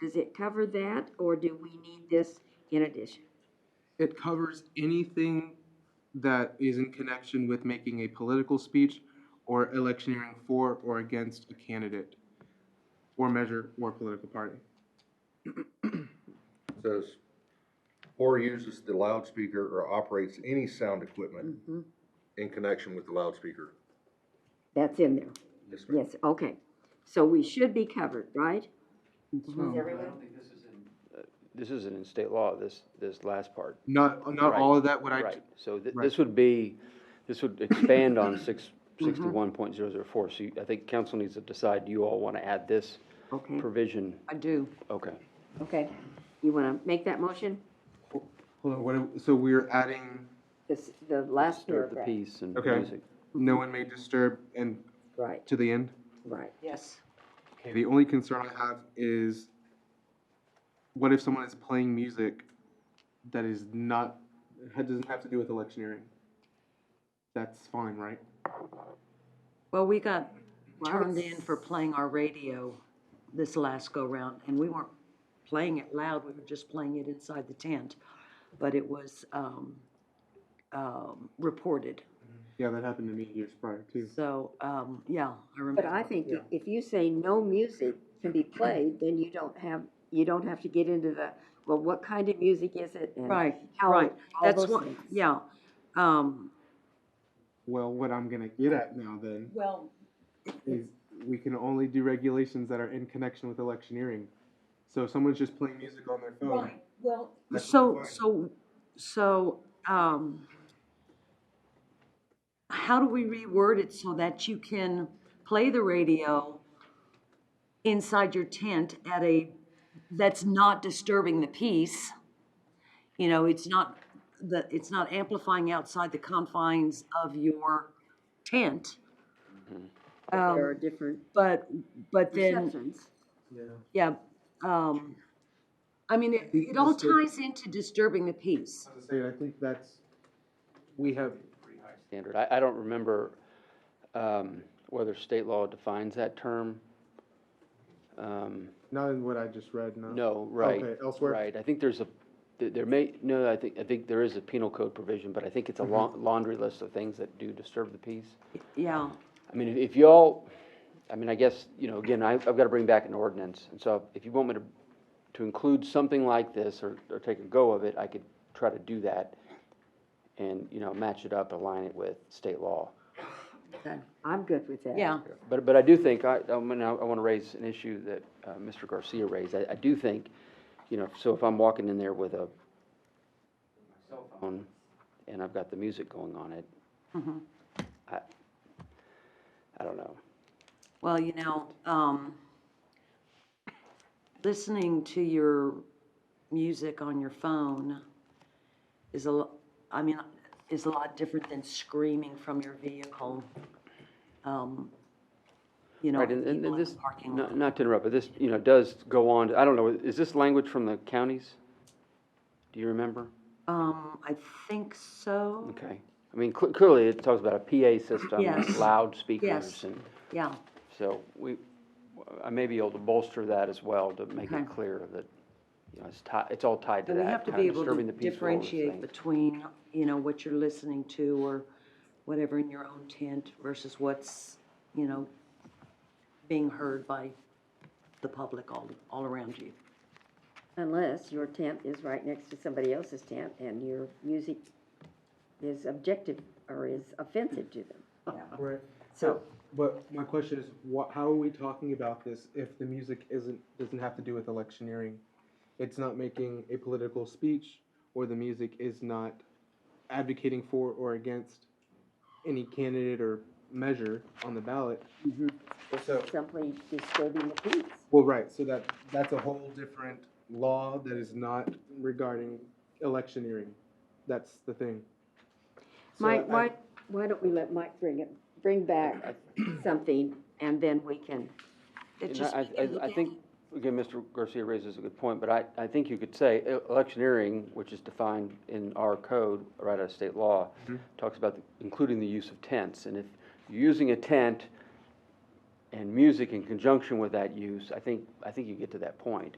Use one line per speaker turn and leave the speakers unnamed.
does it cover that, or do we need this in addition?
It covers anything that is in connection with making a political speech or electioneering for or against a candidate or measure or political party.
says, or uses the loudspeaker or operates any sound equipment
Mm-hmm.
Mhm.
in connection with the loudspeaker.
That's in there,
Yes, ma'am.
yes, okay. So we should be covered, right?
Mm-hmm.
Oh.
Um,
Uh, This isn't in state law, this, this last part.
Not, not
Right,
all of that would I,
Right, so th-
right.
this would be, this would expand on six,
Mm-hmm.
sixty-one point zero zero four. So you- I think council needs to decide, do you all want to add this
Okay,
provision?
I do.
Okay.
okay. You want to make that motion?
hold on, what, am- so we're adding,
This, the last
Start the
paragraph,
piece and
Okay.
music.
no one may disturb and
right,
to the end?
right.
Yes.
Okay, the only concern I have is what if someone is playing music that is not, that doesn't have to do with electioneering? That's fine, right?
Well, we got
Wow.
turned in for playing our radio this last go-round, and we weren't playing it loud, we were just playing it inside the tent. But it was, um, um, reported.
Yeah, that happened to me years prior too.
So, um, yeah, I remember.
But I think i- if you say no music can be played, then you don't have, you don't have to get into the, well, what kind of music is it? and
Right,
how-
right.
all
That's
those
what,
things.
yeah. Um,
Well, what I'm gonna get at now then
well,
is we can only do regulations that are in connection with electioneering. So if someone's just playing music on their phone,
Right, well.
That's
So,
fine.
so, so, um, how do we reword it so that you can play the radio inside your tent at a, that's not disturbing the peace? You know, it's not, the, it's not amplifying outside the confines of your tent. Um,
There are different
But, but then.
perceptions.
Yeah, um, I mean, it,
The-
it all
the state-
ties into disturbing the peace.
as I say, I think that's, we have,
Standard. I, I don't remember, um, whether state law defines that term. Um,
not in what I just read, no.
No, right.
Okay, elsewhere?
Right, I think there's a, th- there may, no, I think, I think there is a penal code provision, but I think it's a
Mm-hmm.
laun- laundry list of things that do disturb the peace.
Yeah,
I mean, if- if y'all, I mean, I guess, you know, again, I, I've got to bring back an ordinance, and so if you want me to, to include something like this, or, or take a go of it, I could try to do that, and, you know, match it up, align it with state law.
I'm good with that.
yeah,
But, but I do think, I, I mean, I want to raise an issue that uh, Mr. Garcia raised. I, I do think, you know, so if I'm walking in there with a cell phone and I've got the music going on it,
Mm-hmm.
I, I don't know.
well, you know, um, listening to your music on your phone is a, lo- I mean, is a lot different than screaming from your vehicle. Um, You know,
Right, and, and
people
and
in
this,
the parking lot.
not, not to interrupt, but this, you know, does go on, to- I don't know, is this language from the counties? Do you remember?
Um, I think so,
Okay. I mean, cl- clearly it talks about a PA system,
Yes.
and loudspeakers
Yes.
and.
yeah.
So we, I may be able to bolster that as well to make
Okay.
it clear that, you know, it's tied, it's all tied to
And
that.
we have to
kinda
be able
disturbing
to
the peace of all those
differentiate
things.
between, you know, what you're listening to or whatever in your own tent versus what's, you know, being heard by the public all, all around you.
Unless your tent is right next to somebody else's tent and your music is objective or is offensive to them.
Right.
So,
But my question is, wha how are we talking about this if the music isn't, doesn't have to do with electioneering? It's not making a political speech, or the music is not advocating for or against any candidate or measure on the ballot. So,
simply disturbing the peace.
well, right, so that, that's a whole different law that is not regarding electioneering. That's the thing. So
Mike,
I-
why, why don't we let Mike bring it, bring back something and then we can,
It
And
just-
I, I, I think, again, Mr. Garcia raises a good point, but I, I think you could say e- electioneering, which is defined in our code, right out of state law, talks about the- including the use of tents, and if you're using a tent and music in conjunction with that use, I think, I think you get to that point.